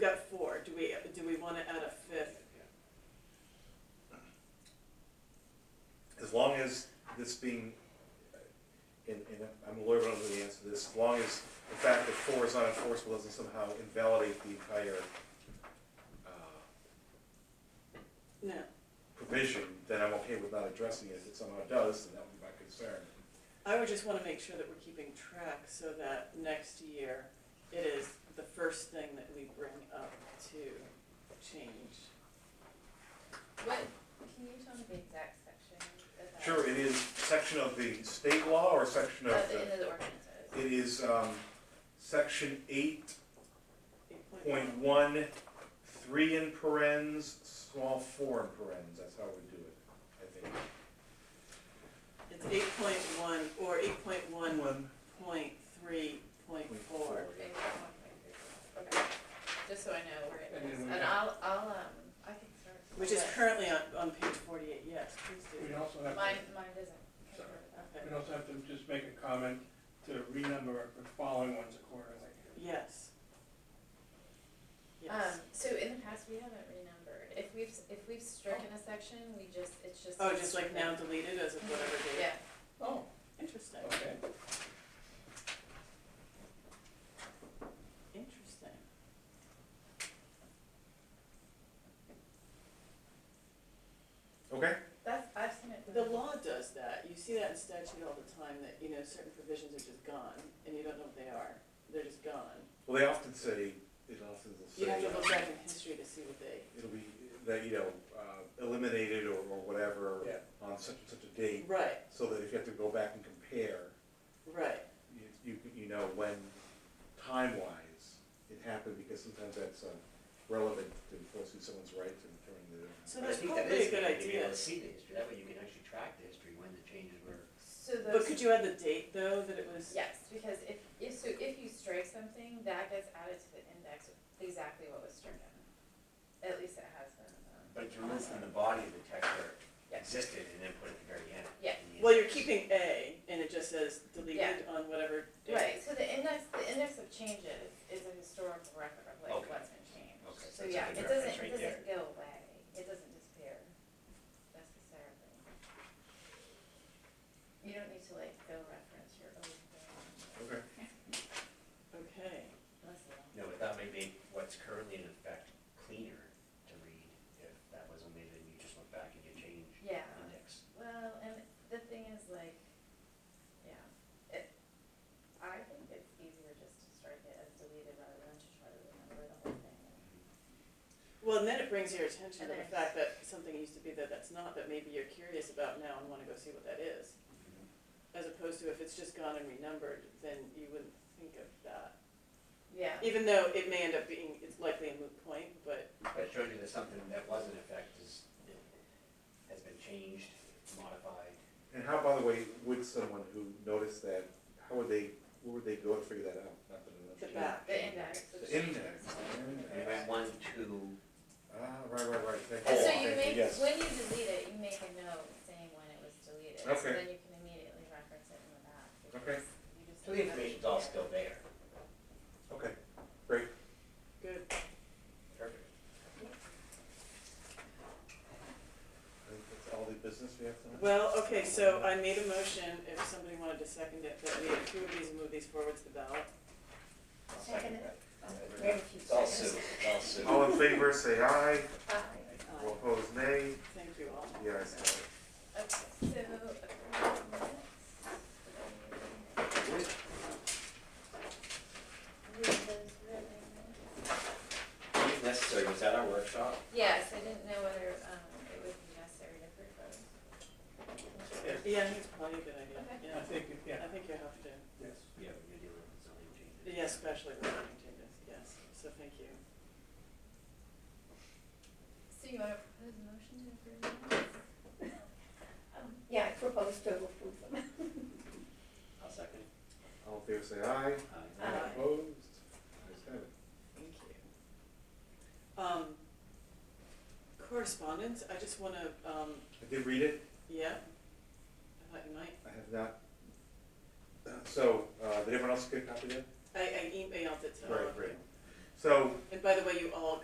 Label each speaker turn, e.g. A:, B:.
A: this being, and, and I'm a lawyer, but I don't know the answer to this, as long as the fact that four is not enforceable doesn't somehow invalidate the entire, uh,
B: No,
A: provision, then I'm okay with not addressing it. If it somehow does, then that would be my concern.
B: I would just wanna make sure that we're keeping track so that next year it is the first thing that we bring up to change.
C: What, can you tell me the exact section of that?
A: Sure, it is section of the state law or section of
C: Of the,
A: the,
C: in the ordinances?
A: it is, um, section eight
B: Eight
A: point one, three in parens, small four in parens, that's how we do it, I think.
B: It's eight point one or eight point one point three point four.
C: Okay, one point three four. Okay, just so I know where it
D: And
C: is,
D: then we
C: and
D: have-
C: I'll, I'll, um, I can start.
B: Which is
C: but
B: currently on, on page forty-eight, yes, please
D: We
B: do.
D: also have,
C: Mine,
D: to-
C: mine doesn't.
D: Sorry.
B: Okay,
D: we also have to just make a comment to renumber the following ones accordingly.
B: yes. Yes.
C: Um, so in the past, we haven't renumbered, if we've, if we've stricken a section, we just, it's just.
B: Oh, just like now deleted as of whatever date?
C: Yeah,
D: Oh,
B: Interesting,
D: okay.
B: interesting.
A: Okay,
C: that's, I've seen it.
B: The
C: done.
B: law does that. You see that in statute all the time, that, you know, certain provisions are just gone, and you don't know what they are. They're just gone.
A: well, they often say, it often will
B: You have
A: say, uh,
B: to look back in history to see what they,
A: it'll be, that, you know, uh, eliminated or, or whatever
D: Yeah.
A: on such and such a date,
B: right,
A: so that if you have to go back and compare,
B: right.
A: you, you, you know, when time-wise it happened, because sometimes that's uh, relevant to enforcing someone's right to determine the.
B: So
E: But I
B: that's
E: think that
B: probably
E: is
B: a good
E: good to be
B: idea.
E: able to see the history, that way you can actually track the history when the changes were.
C: So those.
B: But could you add the date, though, that it was?
C: Yes, because if, if, so if you strike something, that gets added to the index with exactly what was stricken. At least it has been. um,
E: But you're removed from the body of the text where
C: Yeah.
E: it existed and then put it at the very end.
C: Yeah.
E: in the
B: Well, you're
E: index.
B: keeping A, and it just says deleted on whatever date.
C: Right, so the index, the index of changes is a historical record of like
E: Okay.
C: what's been changed.
E: Okay, so
C: So
E: it's a
C: yeah, it
E: good reference
C: doesn't, it
E: right
C: doesn't go away, it doesn't disappear necessarily. You don't need to like go reference your own thing
A: Okay.
B: Okay,
C: unless you want.
E: No, but that may make what's currently in effect cleaner to read if that was omitted and you just went back and you changed
C: Yeah.
E: index.
C: Well, and the thing is like, yeah, it, I think it's easier just to strike it as deleted rather than to try to remember the whole thing.
B: well, and then it brings your attention to
C: And
B: the
C: there's-
B: fact that something used to be that that's not, that maybe you're curious about now and wanna go see what that is. As opposed to if it's just gone and renumbered, then you wouldn't think of that.
C: Yeah,
B: Even though it may end up being, it's likely a moot point, but,
E: But it showed you that something that was in effect is, has been changed, modified.
A: And how, by the way, would someone who noticed that, how would they, where would they go to figure that out? Not that I know.
B: The back.
C: the index.
A: The
C: which-
A: index.
E: You went one, two,
A: Ah, right, right, right, thank you.
C: And so
A: Thank
C: you make,
A: Oh, yes.
C: when you delete it, you make a note saying when it was deleted, so
A: Okay.
C: then you can immediately reference it in the back. because
A: Okay.
C: you just-
E: so the information's all still there.
A: Okay, great.
B: good.
E: Perfect.
A: I think that's all the business we have tonight.
B: Well, okay, so I made a motion, if somebody wanted to second it, that we approve these and move these forward to the ballot.
E: I'll
C: Second
E: that.
C: Very few
E: It's all
C: seconds.
E: Sue, it's all Sue.
A: All in favor, say aye.
C: Aye.
A: All opposed, nay.
B: Uh, Thank you all.
A: The ayes have it.
C: Okay, so, approve minutes. Read those really minutes.
E: If necessary, was that our workshop?
C: Yes, I didn't know whether, um, it would be necessary to approve those.
B: Yeah, I think it's probably a good idea,
C: Okay.
D: I
B: yeah.
D: think, yeah,
B: I think you have to,
D: yes.
E: Yeah, we're dealing with zoning changes.
B: yeah, especially with zoning changes, yes, so thank you.
C: So you wanna propose a motion to approve minutes?
F: Um, Yeah, I propose to approve them.
E: I'll second.
A: All in favor, say aye.
E: Aye.
A: All
C: Aye.
A: opposed, ayes have it.
B: Thank you. Um, correspondence, I just wanna, um,
A: I did read it.
B: yeah, I thought you might.
A: I have not. So,
B: e-,
A: uh, did everyone else get a copy of that?
B: I, I emailed it to all of you.
A: So,
B: And by the way, you all